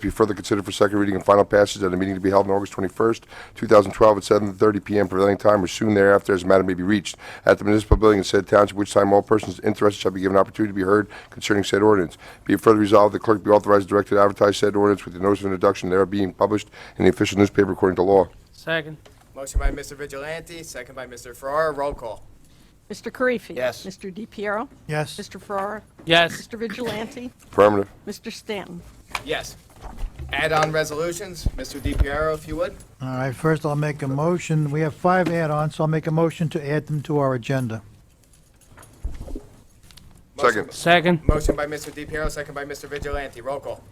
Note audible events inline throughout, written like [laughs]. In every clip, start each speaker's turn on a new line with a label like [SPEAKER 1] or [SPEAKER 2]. [SPEAKER 1] be further considered for second reading and final passage at a meeting to be held on August 21st, 2012, at 7:30 p.m. prevailing time or soon thereafter, as the matter may be reached, at the municipal building in said township, which time all persons interested shall be given opportunity to be heard concerning said ordinance. Be it further resolved, the clerk be authorized and directed to advertise said ordinance with the notice of introduction thereof being published in the official newspaper according to law.
[SPEAKER 2] Second.
[SPEAKER 3] Motion by Mr. Vigilante, second by Mr. Farrar. Roll call.
[SPEAKER 4] Mr. Karifi.
[SPEAKER 3] Yes.
[SPEAKER 4] Mr. DePiero.
[SPEAKER 5] Yes.
[SPEAKER 4] Mr. Ferrara.
[SPEAKER 2] Yes.
[SPEAKER 4] Mr. Vigilante.
[SPEAKER 1] Affirmative.
[SPEAKER 4] Mr. Stanton.
[SPEAKER 3] Yes. Add-on resolutions, Mr. DiPiero, if you would.
[SPEAKER 5] All right, first I'll make a motion. We have five add-ons, so I'll make a motion to add them to our agenda.
[SPEAKER 1] Second.
[SPEAKER 2] Second.
[SPEAKER 3] Motion by Mr. DiPiero, second by Mr. Vigilante. Roll call.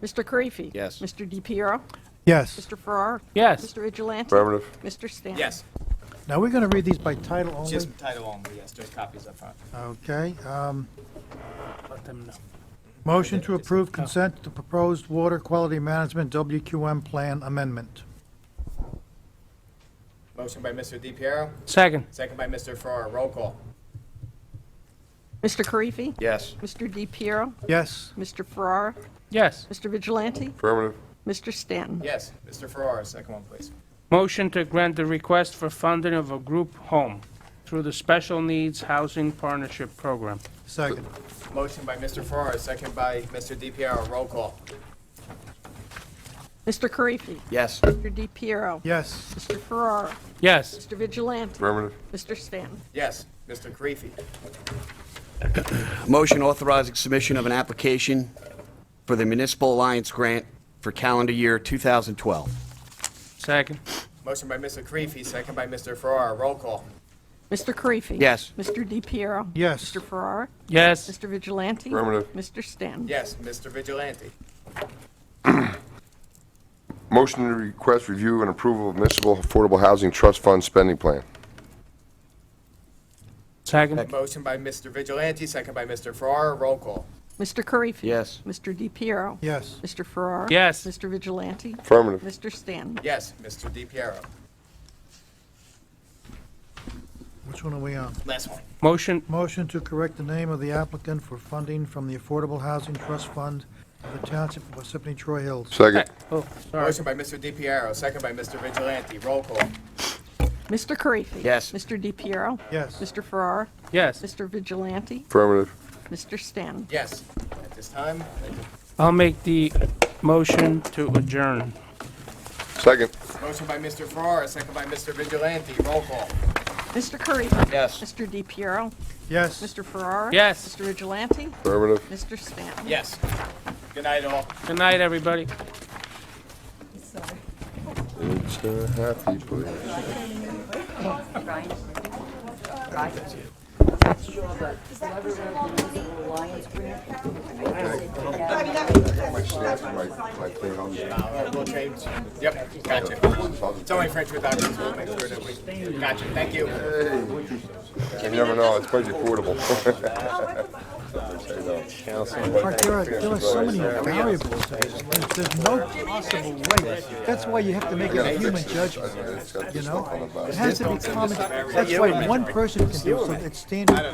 [SPEAKER 4] Mr. Karifi.
[SPEAKER 3] Yes.
[SPEAKER 4] Mr. DePiero.
[SPEAKER 5] Yes.
[SPEAKER 4] Mr. Ferrara.
[SPEAKER 2] Yes.
[SPEAKER 4] Mr. Vigilante.
[SPEAKER 1] Affirmative.
[SPEAKER 4] Mr. Stanton.
[SPEAKER 3] Yes.
[SPEAKER 5] Now, we're going to read these by title only.
[SPEAKER 3] Just title only, yes, just copies up front.
[SPEAKER 5] Okay. um,
[SPEAKER 2] Let them know.
[SPEAKER 5] Motion to approve consent to proposed water quality management WQM plan amendment.
[SPEAKER 3] Motion by Mr. DiPiero,
[SPEAKER 2] Second.
[SPEAKER 3] second by Mr. Farrar. Roll call.
[SPEAKER 4] Mr. Karifi.
[SPEAKER 3] Yes.
[SPEAKER 4] Mr. DePiero.
[SPEAKER 5] Yes.
[SPEAKER 4] Mr. Ferrara.
[SPEAKER 2] Yes.
[SPEAKER 4] Mr. Vigilante.
[SPEAKER 1] Affirmative.
[SPEAKER 4] Mr. Stanton.
[SPEAKER 3] Yes. Mr. Farrar, second one, please.
[SPEAKER 2] Motion to grant the request for funding of a group home through the Special Needs Housing Partnership Program.
[SPEAKER 5] Second.
[SPEAKER 3] Motion by Mr. Farrar, second by Mr. DiPiero. Roll call.
[SPEAKER 4] Mr. Karifi.
[SPEAKER 3] Yes.
[SPEAKER 4] Mr. DePiero.
[SPEAKER 5] Yes.
[SPEAKER 4] Mr. Ferrara.
[SPEAKER 2] Yes.
[SPEAKER 4] Mr. Vigilante.
[SPEAKER 1] Affirmative.
[SPEAKER 4] Mr. Stanton.
[SPEAKER 3] Yes. Mr. Karifi.
[SPEAKER 6] Motion authorizing submission of an application for the Municipal Alliance Grant for calendar year 2012.
[SPEAKER 2] Second.
[SPEAKER 3] Motion by Mr. Karifi, second by Mr. Farrar. Roll call.
[SPEAKER 4] Mr. Karifi.
[SPEAKER 6] Yes.
[SPEAKER 4] Mr. DePiero.
[SPEAKER 5] Yes.
[SPEAKER 4] Mr. Ferrara.
[SPEAKER 2] Yes.
[SPEAKER 4] Mr. Vigilante.
[SPEAKER 1] Affirmative.
[SPEAKER 4] Mr. Stanton.
[SPEAKER 3] Yes. Mr. Vigilante.
[SPEAKER 1] Motion to request review and approval of municipal affordable housing trust fund spending plan.
[SPEAKER 2] Second.
[SPEAKER 3] Motion by Mr. Vigilante, second by Mr. Farrar. Roll call.
[SPEAKER 4] Mr. Karifi.
[SPEAKER 6] Yes.
[SPEAKER 4] Mr. DePiero.
[SPEAKER 5] Yes.
[SPEAKER 4] Mr. Farrar.
[SPEAKER 2] Yes.
[SPEAKER 4] Mr. Vigilante.
[SPEAKER 1] Affirmative.
[SPEAKER 4] Mr. Stanton.
[SPEAKER 3] Yes. Mr. DiPiero.
[SPEAKER 5] Which one are we on?
[SPEAKER 3] Last one.
[SPEAKER 2] Motion,
[SPEAKER 5] Motion to correct the name of the applicant for funding from the Affordable Housing Trust Fund of the Township of Parsippany Troy Hills.
[SPEAKER 1] Second.
[SPEAKER 2] oh, sorry.
[SPEAKER 3] Motion by Mr. DiPiero, second by Mr. Vigilante. Roll call.
[SPEAKER 4] Mr. Karifi.
[SPEAKER 6] Yes.
[SPEAKER 4] Mr. DePiero.
[SPEAKER 5] Yes.
[SPEAKER 4] Mr. Farrar.
[SPEAKER 2] Yes.
[SPEAKER 4] Mr. Vigilante.
[SPEAKER 1] Affirmative.
[SPEAKER 4] Mr. Stanton.
[SPEAKER 3] Yes. At this time,
[SPEAKER 2] I'll make the motion to adjourn.
[SPEAKER 1] Second.
[SPEAKER 3] motion by Mr. Farrar, second by Mr. Vigilante. Roll call.
[SPEAKER 4] Mr. Karifi.
[SPEAKER 6] Yes.
[SPEAKER 4] Mr. DePiero.
[SPEAKER 5] Yes.
[SPEAKER 4] Mr. Farrar.
[SPEAKER 2] Yes.
[SPEAKER 4] Mr. Vigilante.
[SPEAKER 1] Affirmative.
[SPEAKER 4] Mr. Stanton.
[SPEAKER 3] Yes. Good night, all.
[SPEAKER 2] Good night, everybody.
[SPEAKER 1] It's a happy place.
[SPEAKER 3] We'll change. Yep, gotcha. It's only French with Irish. We'll make sure that we, gotcha. Thank you.
[SPEAKER 1] You never know, it's quite affordable. [laughs]
[SPEAKER 5] Mark, there are, there are so many variables. There's there's no possible way. That's why you have to make a human judgment, you know? It has to be common, that's why one person can do it, so it's standard.